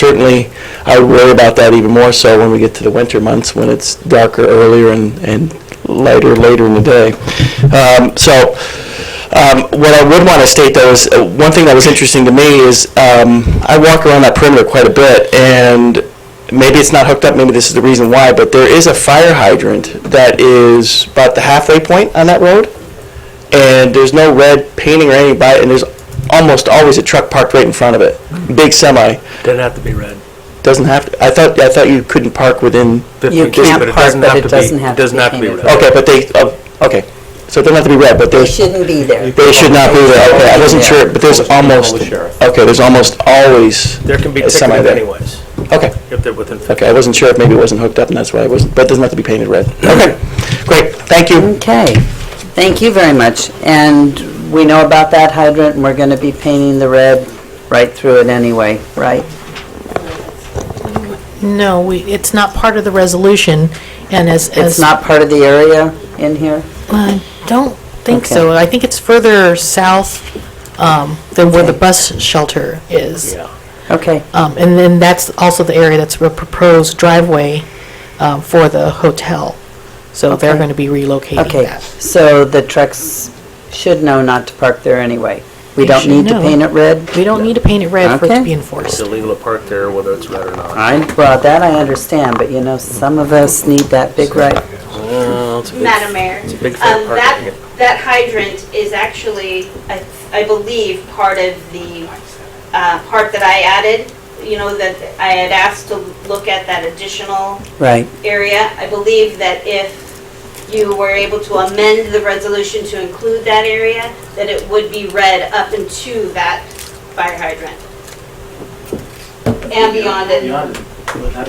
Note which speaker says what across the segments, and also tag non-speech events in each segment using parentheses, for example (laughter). Speaker 1: certainly, I would worry about that even more so when we get to the winter months, when it's darker earlier and, and lighter later in the day. Um, So, um, what I would want to state though is, uh, one thing that was interesting to me is, um, I walk around that perimeter quite a bit, and maybe it's not hooked up, maybe this is the reason why, but there is a fire hydrant that is about the halfway point on that road and there's no red painting or anything by it, and there's almost always a truck parked right in front of it. Big semi,
Speaker 2: Doesn't have to be red.
Speaker 1: doesn't have to, I thought, I thought you couldn't park within,
Speaker 2: 50
Speaker 3: You
Speaker 2: feet,
Speaker 3: can't
Speaker 2: but it
Speaker 3: park,
Speaker 2: doesn't
Speaker 3: but
Speaker 2: have
Speaker 3: it
Speaker 2: to be-
Speaker 3: doesn't have
Speaker 2: It does
Speaker 3: to be
Speaker 2: not have to be
Speaker 3: painted.
Speaker 2: red.
Speaker 1: okay, but they, oh, okay, so it doesn't have to be red, but
Speaker 3: They
Speaker 1: there's,
Speaker 3: shouldn't be there.
Speaker 1: they should not be there, okay, I wasn't sure, but there's almost, okay, there's almost always
Speaker 2: There can be
Speaker 1: a semi
Speaker 2: ticketed
Speaker 1: there.
Speaker 2: anyways,
Speaker 1: Okay,
Speaker 2: if they're within 50.
Speaker 1: okay, I wasn't sure if maybe it wasn't hooked up, and that's why I wasn't, but it doesn't have to be painted red. Okay, great, thank you.
Speaker 3: Okay, thank you very much. And we know about that hydrant, and we're going to be painting the red right through it anyway, right?
Speaker 4: No, we, it's not part of the resolution, and as,
Speaker 3: It's
Speaker 4: as,
Speaker 3: not part of the area in here?
Speaker 4: I don't think
Speaker 3: Okay.
Speaker 4: so. I think it's further south um, than where the bus shelter is.
Speaker 2: Yeah.
Speaker 3: Okay,
Speaker 4: Um, And then that's also the area that's a proposed driveway um, for the hotel. So they're
Speaker 3: Okay.
Speaker 4: going to be relocating
Speaker 3: okay.
Speaker 4: that.
Speaker 3: So the trucks should know not to park there anyway. We
Speaker 4: They
Speaker 3: don't
Speaker 4: should
Speaker 3: need to
Speaker 4: know.
Speaker 3: paint it red?
Speaker 4: We don't need to paint it red for it
Speaker 3: Okay.
Speaker 4: to be
Speaker 2: It's
Speaker 4: enforced.
Speaker 2: illegal to park there, whether it's red or not.
Speaker 3: I, well, that I understand, but you know, some of us need that big right. Uh,
Speaker 2: Well, it's a big-
Speaker 5: Madam Mayor,
Speaker 2: It's a big fat
Speaker 5: um,
Speaker 2: parking.
Speaker 5: that, that hydrant is actually, I I believe, part of the uh, part that I added, you know, that I had asked to look at that additional
Speaker 3: Right,
Speaker 5: area. I believe that if you were able to amend the resolution to include that area, that it would be read up into that fire hydrant. And beyond it.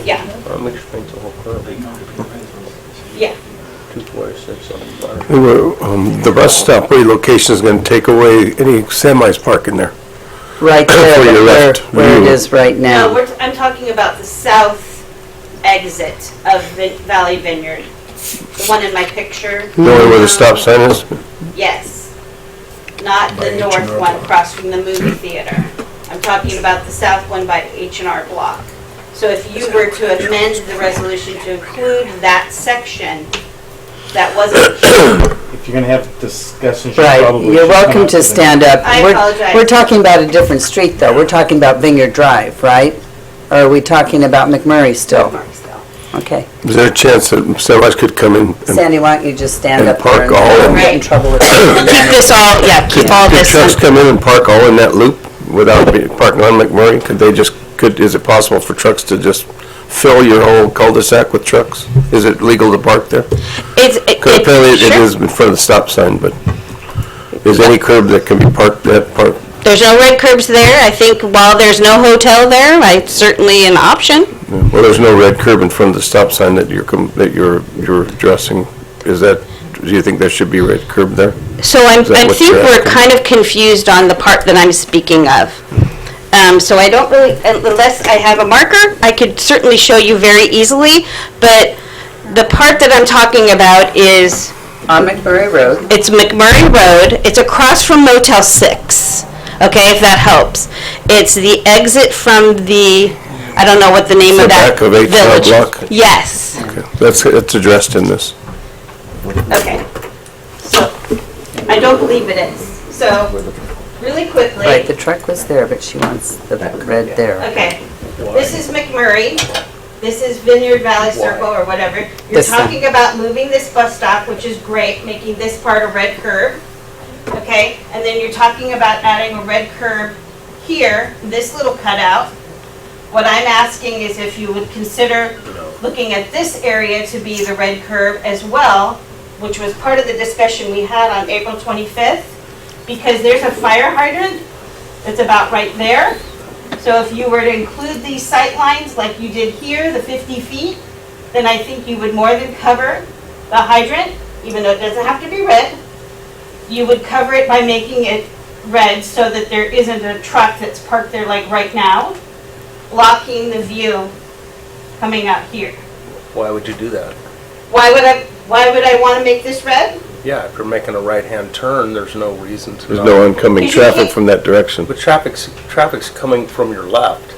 Speaker 5: Yeah,
Speaker 2: Well, Make sure it's a whole curb,
Speaker 5: yeah.
Speaker 2: two, four, six, on the bar.
Speaker 6: We were, um, The bus stop relocation is going to take away any semis parking there.
Speaker 3: right there,
Speaker 6: For your
Speaker 3: where,
Speaker 6: left
Speaker 3: where it
Speaker 6: view.
Speaker 3: is right
Speaker 5: No,
Speaker 3: now.
Speaker 5: we're, I'm talking about the south exit of Vin- Valley Vineyard, the one in my picture.
Speaker 3: Hmm.
Speaker 6: The only
Speaker 7: Mm-hmm.
Speaker 6: where the stop sign is,
Speaker 5: Yes, not the north one across from the movie theater. I'm talking about the south one by H and R Block. So if you were to amend the resolution to include that section, that wasn't
Speaker 8: If you're gonna have discussions, you
Speaker 3: Right,
Speaker 8: probably
Speaker 3: you're
Speaker 8: should come
Speaker 3: welcome
Speaker 8: up
Speaker 3: to
Speaker 8: with a-
Speaker 3: stand up.
Speaker 5: I
Speaker 3: We're-
Speaker 5: apologize.
Speaker 3: We're talking about a different street, though. We're talking about Vineyard Drive, right? Or are we talking about McMurray still? (coughs)
Speaker 5: marked though.
Speaker 3: Okay.
Speaker 6: is there a chance that semis could come in? and
Speaker 3: Sandy, why don't you just stand
Speaker 6: And
Speaker 3: up there
Speaker 6: park
Speaker 3: and
Speaker 6: all
Speaker 3: don't
Speaker 6: in.
Speaker 3: get in trouble with it?
Speaker 7: keep this all, yeah, keep all
Speaker 6: Could
Speaker 7: this.
Speaker 6: trucks come in and park all in that loop without be- parking on McMurray? Could they just, could, is it possible for trucks to just fill your whole cul-de-sac with trucks? Is it legal to park there?
Speaker 7: It's, it,
Speaker 6: Because apparently
Speaker 7: it,
Speaker 6: it
Speaker 7: sure.
Speaker 6: is in front of the stop sign, but is any curb that can be parked, that park,
Speaker 7: There's no red curbs there. I think while there's no hotel there, I certainly an option.
Speaker 6: Well, there's no red curb in front of the stop sign that you're, com- that you're, you're addressing. Is that, do you think there should be red curb there?
Speaker 7: So I'm,
Speaker 6: Is that
Speaker 7: I
Speaker 6: what
Speaker 7: think
Speaker 6: you're
Speaker 7: we're
Speaker 6: asking?
Speaker 7: kind of confused on the part that I'm speaking of. Um, so I don't really, unless I have a marker, I could certainly show you very easily, but the part that I'm talking about is
Speaker 3: On McMurray Road,
Speaker 7: It's McMurray Road. It's across from Motel 6. Okay, if that helps. It's the exit from the, I don't know what the name
Speaker 6: The
Speaker 7: of that
Speaker 6: back of H&R
Speaker 7: village.
Speaker 6: Block?
Speaker 7: Yes.
Speaker 6: That's, that's addressed in this.
Speaker 5: Okay, so, I don't believe it is. So, really quickly.
Speaker 3: right, the truck was there, but she wants the red there.
Speaker 5: Okay, this is McMurray, this is Vineyard Valley Circle or whatever. You're
Speaker 3: This one.
Speaker 5: talking about moving this bus stop, which is great, making this part a red curb, okay? And then you're talking about adding a red curb here, this little cutout. What I'm asking is if you would consider looking at this area to be the red curb as well, which was part of the discussion we had on April 25th, because there's a fire hydrant that's about right there. So if you were to include these sight lines like you did here, the 50 feet, then I think you would more than cover the hydrant, even though it doesn't have to be red. You would cover it by making it red so that there isn't a truck that's parked there like right now, blocking the view coming out here.
Speaker 2: Why would you do that?
Speaker 5: Why would I, why would I want to make this red?
Speaker 2: Yeah, if you're making a right-hand turn, there's no reason to
Speaker 6: There's
Speaker 2: not.
Speaker 6: no oncoming traffic from that direction.
Speaker 2: But traffic's, traffic's coming from your left.